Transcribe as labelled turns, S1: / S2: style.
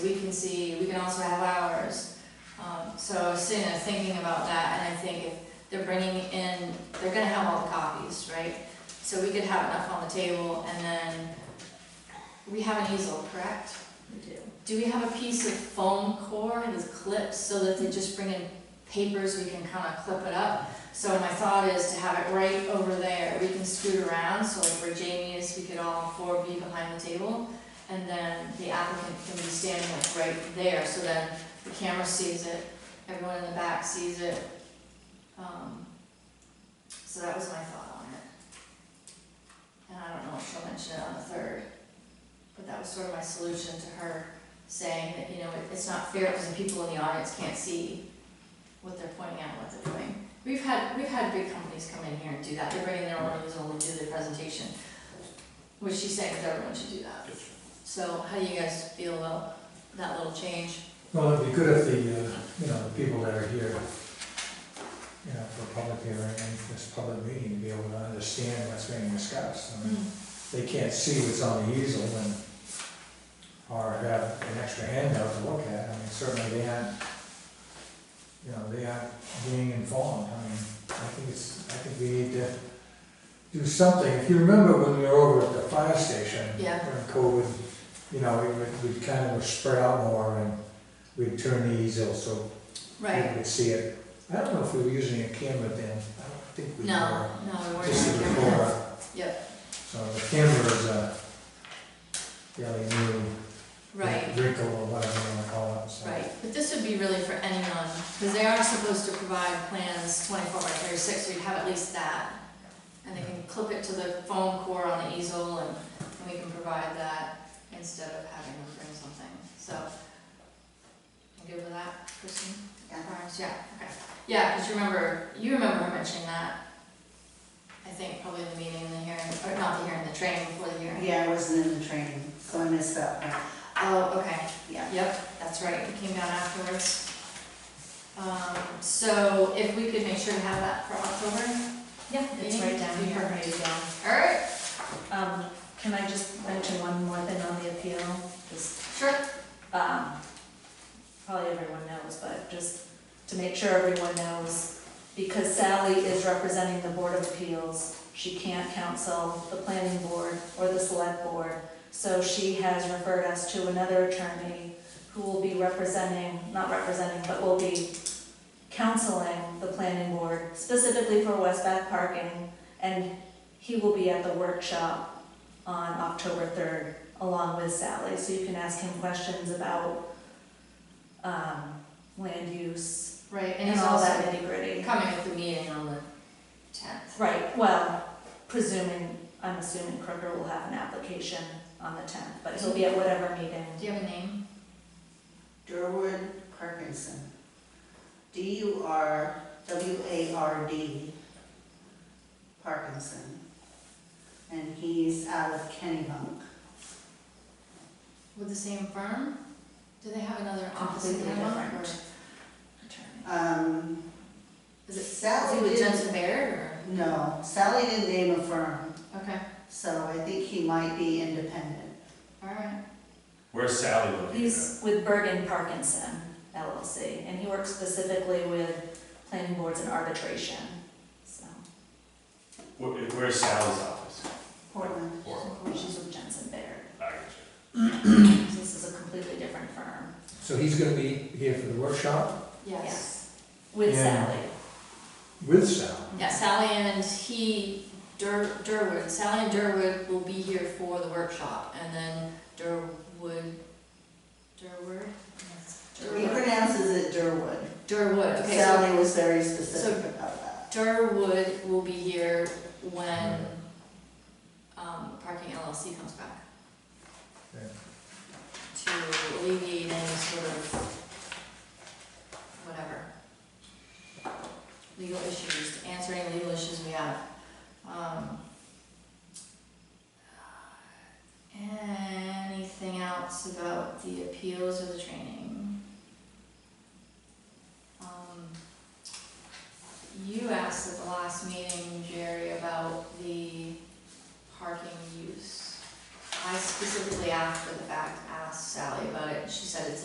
S1: we can see, we can also have ours. Um, so I was sitting there thinking about that, and I think if they're bringing in, they're gonna have all the copies, right? So we could have enough on the table, and then, we have an easel, correct?
S2: We do.
S1: Do we have a piece of foam core with clips, so that they just bring in papers, we can kinda clip it up? So my thought is to have it right over there, we can scoot around, so like where Jamie is, we could all four be behind the table. And then the applicant can be standing like right there, so then the camera sees it, everyone in the back sees it. Um, So that was my thought on it. And I don't know if she'll mention it on the third, but that was sort of my solution to her saying that, you know, it- it's not fair because the people in the audience can't see what they're pointing out, what they're doing. We've had, we've had big companies come in here and do that, they bring in their own easel and do their presentation, which she's saying that everyone should do that. So how do you guys feel about that little change?
S3: Well, it'd be good if the, uh, you know, the people that are here, you know, for public hearing and this public meeting, be able to understand what's being discussed. I mean, they can't see what's on the easel and, or have an extra handout to look at. I mean, certainly they aren't, you know, they aren't being informed. I mean, I think it's, I think we need to do something. If you remember when we were over at the fire station,
S1: Yeah.
S3: during COVID, you know, we, would- we kind of were spread out more and we'd turn the easel so people
S1: Right,
S3: could see it. I don't know if we were using a camera then, I don't think we were.
S1: no, no, we weren't.
S3: Just
S1: on
S3: the
S1: camera.
S3: recorder.
S1: Yep,
S3: So the camera is a fairly new
S1: right,
S3: wrinkle or whatever you wanna call it, so.
S1: right, but this would be really for anyone, because they are supposed to provide plans twenty-four by thirty-six, so you'd have at least that. And they can clip it to the foam core on the easel, and and we can provide that instead of having them bring something, so. You good with that, Kristen? Perhaps, Yeah, okay, yeah, because you remember, you remember her mentioning that, I think probably in the meeting, in the hearing, or not the hearing, the training before the hearing.
S2: Yeah, I wasn't in the training, so I missed that one.
S1: Oh, okay,
S2: Yeah.
S1: yep, that's right, it came down afterwards. Um, so if we could make sure to have that for October,
S4: Yeah, it's right down
S1: Be
S4: here,
S1: perfect.
S4: ready to go.
S1: alright,
S4: Um, can I just mention one more thing on the appeal? Just,
S1: sure,
S4: um, probably everyone knows, but just to make sure everyone knows, because Sally is representing the Board of Appeals, she can't counsel the planning board or the select board. So she has referred us to another attorney who will be representing, not representing, but will be counseling the planning board specifically for West Bath parking. And he will be at the workshop on October third along with Sally. So you can ask him questions about, um, land use
S1: right, and
S4: and
S1: he's
S4: all
S1: also
S4: that nitty gritty.
S1: coming at the meeting on the tenth.
S4: Right, well, presuming, I'm assuming Crooker will have an application on the tenth, but he'll be at whatever meeting.
S1: Do you have a name?
S2: Durwood Parkinson. D U R W A R D Parkinson. And he's out of Kennybunk.
S1: With the same firm? Do they have another office in
S4: Completely
S1: Vermont, or
S4: different.
S1: attorney?
S2: Um,
S1: Is it, is
S2: Sally
S1: it with
S2: didn't-
S1: Jensen Baird or?
S2: no, Sally didn't name a firm,
S1: Okay,
S2: so I think he might be independent.
S1: alright,
S5: Where's Sally located?
S4: He's with Bergen Parkinson LLC, and he works specifically with planning boards and arbitration, so.
S5: Where- Where's Sally's office?
S2: Portland.
S5: Or-
S4: She's with Jensen Baird.
S5: I got you.
S4: So This is a completely different firm.
S3: So he's gonna be here for the workshop
S1: yes.
S4: With
S3: Yeah.
S4: Sally.
S3: with Sal.
S1: Yeah, Sally and he, Dur- Durwood, Sally and Durwood will be here for the workshop, and then Durwood, Durwood? Yes,
S2: He
S1: Durwood,
S2: pronounces it Durwood.
S1: Durwood, okay, so
S2: Sally was very specific about that.
S1: Durwood will be here when, um, Parking LLC comes back.
S3: Okay.
S1: To alleviate any sort of, whatever, legal issues, to answer any legal issues we have. Um, Anything else about the appeals or the training? Um,